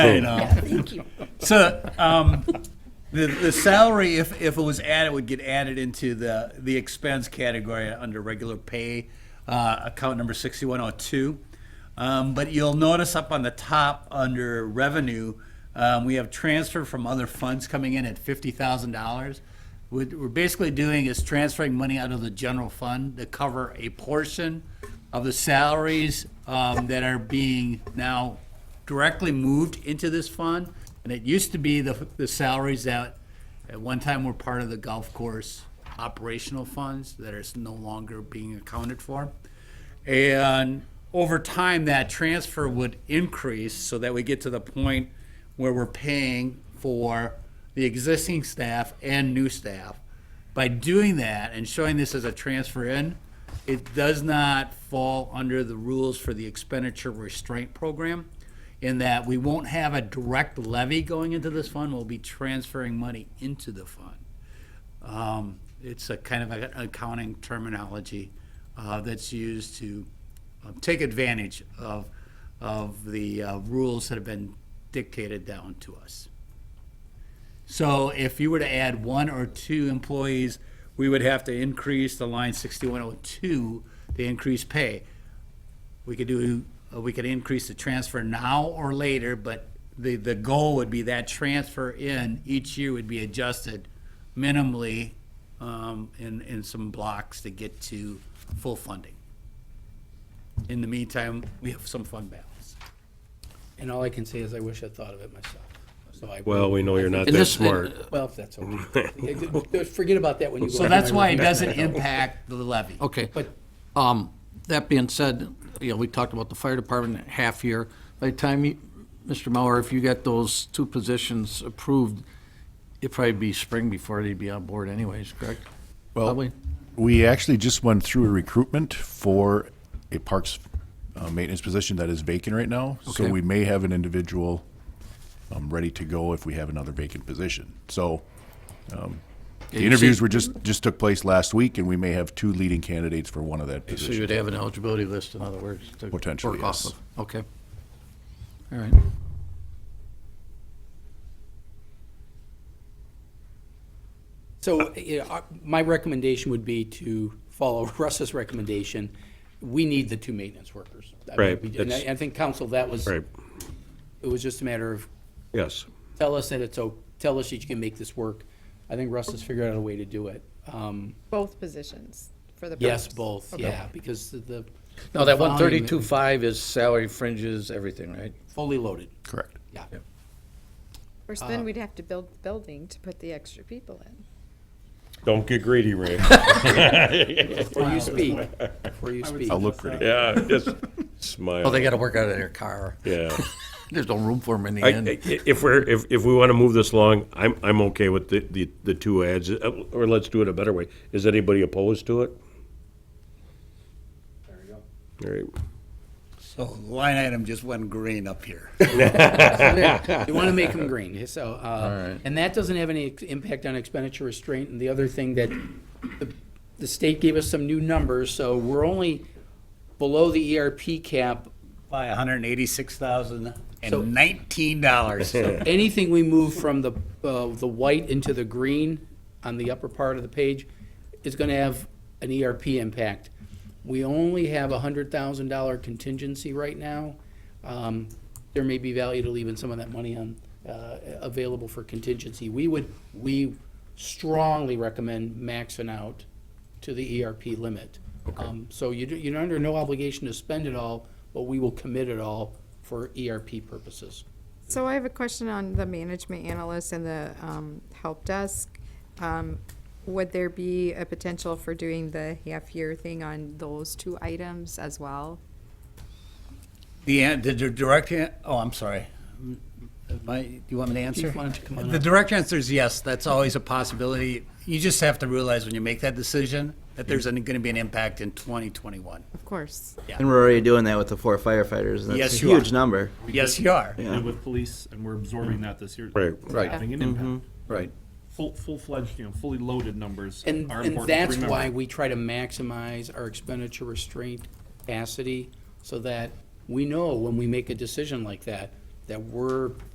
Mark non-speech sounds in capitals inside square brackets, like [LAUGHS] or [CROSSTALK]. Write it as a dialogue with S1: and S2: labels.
S1: [LAUGHS]
S2: Right on.
S1: Thank you.
S2: So, um, the, the salary, if, if it was added, would get added into the, the expense category under regular pay, uh, account number sixty-one oh two. Um, but you'll notice up on the top, under revenue, um, we have transfer from other funds coming in at fifty thousand dollars. What we're basically doing is transferring money out of the general fund to cover a portion of the salaries, um, that are being now directly moved into this fund, and it used to be the, the salaries that at one time were part of the golf course operational funds that is no longer being accounted for. And over time, that transfer would increase so that we get to the point where we're paying for the existing staff and new staff. By doing that and showing this as a transfer in, it does not fall under the rules for the expenditure restraint program in that we won't have a direct levy going into this fund, we'll be transferring money into the fund. Um, It's a kind of an accounting terminology uh, that's used to uh, take advantage of, of the uh, rules that have been dictated down to us. So if you were to add one or two employees, we would have to increase the line 6102 to increase pay. We could do, uh, we could increase the transfer now or later, but the, the goal would be that transfer in each year would be adjusted minimally um, in, in some blocks to get to full funding. In the meantime, we have some fund balance.
S3: And all I can say is I wish I'd thought of it myself. So I,
S4: Well, we know you're not
S5: And
S4: that
S5: this-
S4: smart.
S3: well, if that's
S4: [LAUGHS]
S3: okay. Forget about that when you go.
S2: So that's why it doesn't impact the levy.
S5: Okay.
S3: But-
S5: Um, that being said, you know, we talked about the fire department half year. By the time you, Mr. Mauer, if you get those two positions approved, it'd probably be spring before they'd be on board anyways, correct? Probably.
S6: Well, we actually just went through a recruitment for a parks uh, maintenance position that is vacant right now. So
S5: Okay.
S6: we may have an individual um, ready to go if we have another vacant position. So um,
S5: you
S6: the interviews
S5: see-
S6: were just, just took place last week and we may have two leading candidates for one of that
S5: So
S6: position.
S5: you'd have an eligibility list, in other words, to work
S6: Potentially,
S5: off
S6: yes.
S5: of. Okay. All right.
S3: So, you know, our- my recommendation would be to follow [LAUGHS] Russ's recommendation. We need the two maintenance workers. I mean,
S4: Right,
S3: we- And I,
S4: that's-
S3: I think council, that was,
S4: Right,
S3: it was just a matter of,
S4: yes.
S3: tell us that it's, o- tell us that you can make this work. I think Russ has figured out a way to do it. Um,
S1: Both positions for the.
S3: yes,
S1: perps.
S3: both, yeah, because the- the.
S5: Now, that one
S3: volume
S5: thirty-two five is salary fringes, everything, right?
S3: Fully loaded,
S6: Correct.
S3: yeah.
S1: Of course,
S3: Uh,
S1: then we'd have to build the building to put the extra people in.
S4: Don't get greedy, Ray.
S5: [LAUGHS]
S3: Before you speak, before you speak.
S6: I'll look pretty.
S4: Yeah, just smile.
S5: Well, Oh, they gotta work out of their car. [LAUGHS]
S4: Yeah.
S5: There's no room for them in the
S4: I-
S5: end.
S4: I- If we're, if, if we want to move this along, I'm, I'm okay with the, the, the two ads, uh, or let's do it a better way. Is anybody opposed to it? There you go.
S2: So line item just went green up here.
S3: [LAUGHS] You want to make them green, so, uh,
S5: right.
S3: and that doesn't have any ex- impact on expenditure restraint. And the other thing that the- the state gave us some new numbers, so we're only below the ERP cap.
S2: By hundred and eighty-six thousand
S3: So-
S2: and nineteen dollars.
S3: Anything we move from the, uh, the white into the green on the upper part of the page is going to have an ERP impact. We only have a hundred thousand dollar contingency right now. Um, There may be value to leaving some of that money on, uh, available for contingency. We would, we strongly recommend maxing out to the ERP limit. Um, So you, do- you're under no obligation to spend it all, but we will commit it all for ERP purposes.
S1: So I have a question on the management analyst and the um, help desk. Um, Would there be a potential for doing the half-year thing on those two items as well?
S2: The, an- the director, oh, I'm sorry. My, do you want me to answer?
S3: Chief, why don't you come on
S2: The
S3: up?
S2: direct answer is yes, that's always a possibility. You just have to realize when you make that decision that there's going to be an impact in twenty twenty-one.
S1: Of course.
S7: And we're already doing that with the four firefighters, and that's
S2: Yes,
S7: a
S2: you are.
S7: huge number.
S2: Yes, you are.
S7: Yeah.
S8: did with police, and we're absorbing that this year.
S4: Right.
S5: Right.
S8: Having an impact.
S5: Right.
S8: Full, full-fledged, you know, fully loaded numbers
S3: And,
S8: are
S3: and
S8: important to
S3: that's
S8: remember.
S3: why we try to maximize our expenditure restraint capacity, so that we know when we make a decision like that, that we're